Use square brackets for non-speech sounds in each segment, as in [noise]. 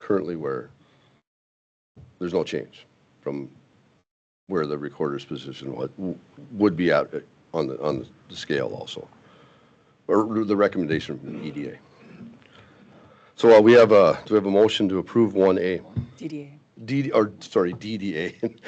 currently where there's no change from where the recorder's position would, would be at on the, on the scale also. Or the recommendation from the EDA. So uh, we have a, do we have a motion to approve 1A? DDA. D, or, sorry, DDA.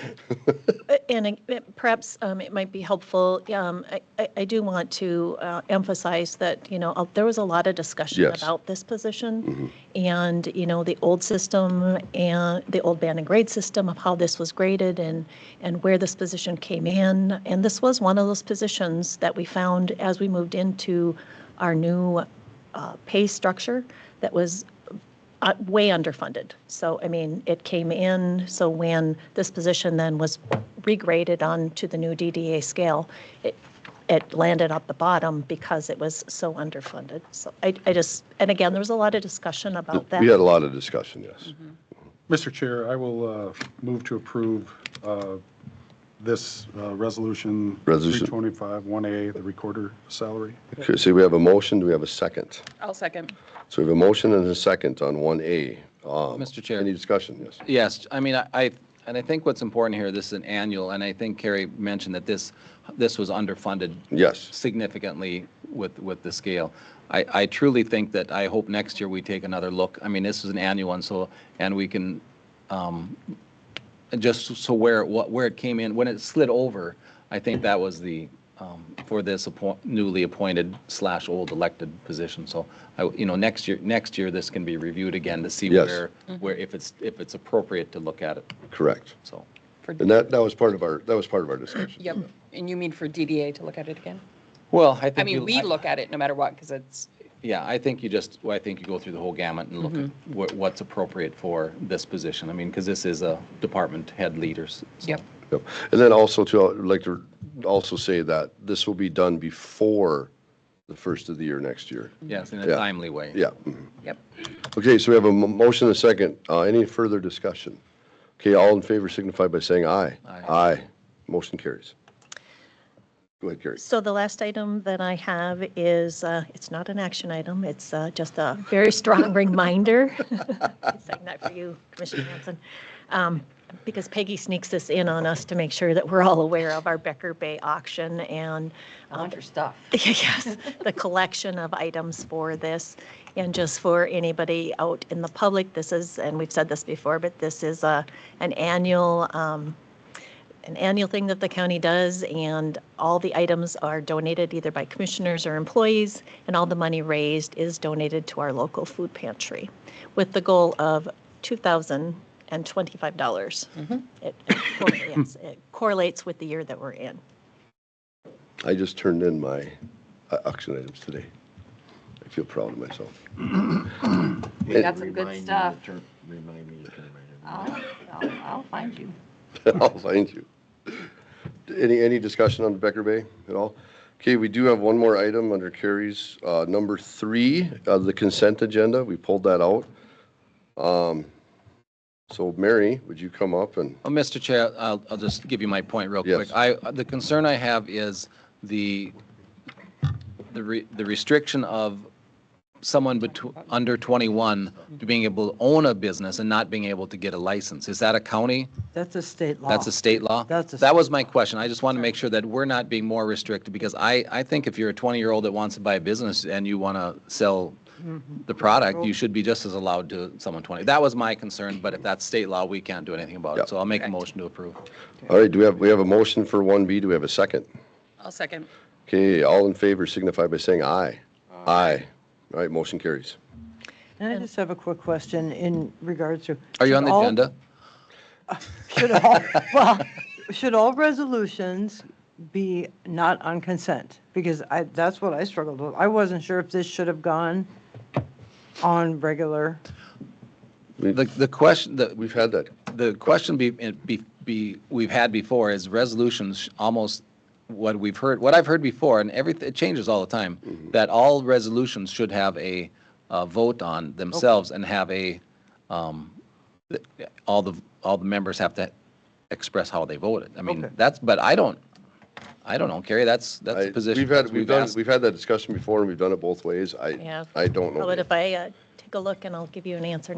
Uh, And uh, perhaps um, it might be helpful, um, I- I I do want to uh, emphasize that, you know, uh, there was a lot of discussion Yes. about this position, and, you know, the old system and the old band and grade system of how this was graded and, and where this position came in. And this was one of those positions that we found as we moved into our new uh, pay structure that was uh, way underfunded. So, I mean, it came in, so when this position then was regraded on to the new DDA scale, it, it landed at the bottom because it was so underfunded. So I, I just, and again, there was a lot of discussion about We had that. Mm-hmm. a lot of discussion, yes. Mr. Chair, I will uh, move to approve uh, this uh, resolution. Resolution. 325, 1A, the recorder salary. Okay, so we have a motion, do we have a second? I'll second. So we have a motion and a second on 1A. Um, Mr. Chair. Any discussion, yes? Yes, I mean, I- I, and I think what's important here, this is an annual, and I think Carrie mentioned that this, this was underfunded Yes, significantly with, with the scale. I, I truly think that, I hope next year we take another look. I mean, this is an annual one, so, and we can, um, just so where, what, where it came in, when it slid over, I think that was the, um, for this appoint- newly appointed slash old elected position. So, I, you know, next year, next year, this can be reviewed again to see Yes. where, where, if it's, if it's appropriate to look at it, correct. so. For And that, that was part of our, that was part of our discussion. Yep, and you mean for DDA to look at it again? Well, I think. I mean, we look at it no matter what, because it's, Yeah, I think you just, well, I think you go through the whole gamut and look at Mm-hmm. what, what's appropriate for this position. I mean, because this is a department head leaders. so- yep, Yep. And then also to, I'd like to also say that this will be done before the first of the year next year. Yes, in a Yeah. timely way. Yeah. mhm. yep. Okay, so we have a mo- motion and a second. Uh, Any further discussion? Okay, all in favor signify by saying aye. Aye. Aye. Motion carries. Go ahead, Carrie. So the last item that I have is, uh, it's not an action item, it's uh, just a very strong reminder. [laughs] I'm Saying that for you, Commissioner Hanson. Um, Because Peggy sneaks this in on us to make sure that we're all aware of our Becker Bay auction and I um, want your stuff. [laughs] Yes, the collection of items for this. And just for anybody out in the public, this is, and we've said this before, but this is a, an annual, um, an annual thing that the county does, and all the items are donated either by commissioners or employees, and all the money raised is donated to our local food pantry with the goal of $2,025. It it correlates- it correlates with the year that we're in. I just turned in my uh, auction items today. I feel proud of myself. We got some Remind good me to stuff. turn- Remind me to turn my. I'll, I'll I'll find you. [laughs] I'll find Oh, you. Any, any discussion on Becker Bay at all? Okay, we do have one more item under Carrie's, uh, number three, uh, the consent agenda. We pulled that out. Um, So Mary, would you come up and, Well, Mr. Uh, Chair, I'll, I'll just give you my point real Yes. quick. I, the concern I have is the, the re- the restriction of someone between, under 21 to being able to own a business and not being able to get a license. Is that a county? That's a state law. That's a state law? That's a That was my question. I just want to make sure that we're not being more restricted because I, I think if you're a 20-year-old that wants to buy a business and you want to sell Mm-hmm. the product, you should be just as allowed to someone 20. That was my concern, but if that's state law, we can't do anything about Yep. it. So I'll make a Correct. motion to approve. all right, do we have, we have a motion for 1B? Do we have a second? I'll second. Okay, all in favor signify by saying aye. Aye. All right, motion carries. And I just have a quick question in regards to. Are you on should the all- agenda? [laughs] [laughs] Should all, well, should all resolutions be not on consent? Because I, that's what I struggled with. I wasn't sure if this should have gone on regular. The, the question, the, We've had that. the question be, it be, be, we've had before is resolutions, almost what we've heard, what I've heard before, and everything, it changes all the time, Mm-hmm. that all resolutions should have a, uh vote on themselves and have a, um, th- all the, all the members have to express how they voted. I mean, Okay. that's, but I don't, I don't know, Carrie, that's, that's I- a position. We've had, that we've done, asked. we've had that discussion before and we've done it both ways. I, Yeah. I don't know. How about if I uh, take a look and I'll give you an answer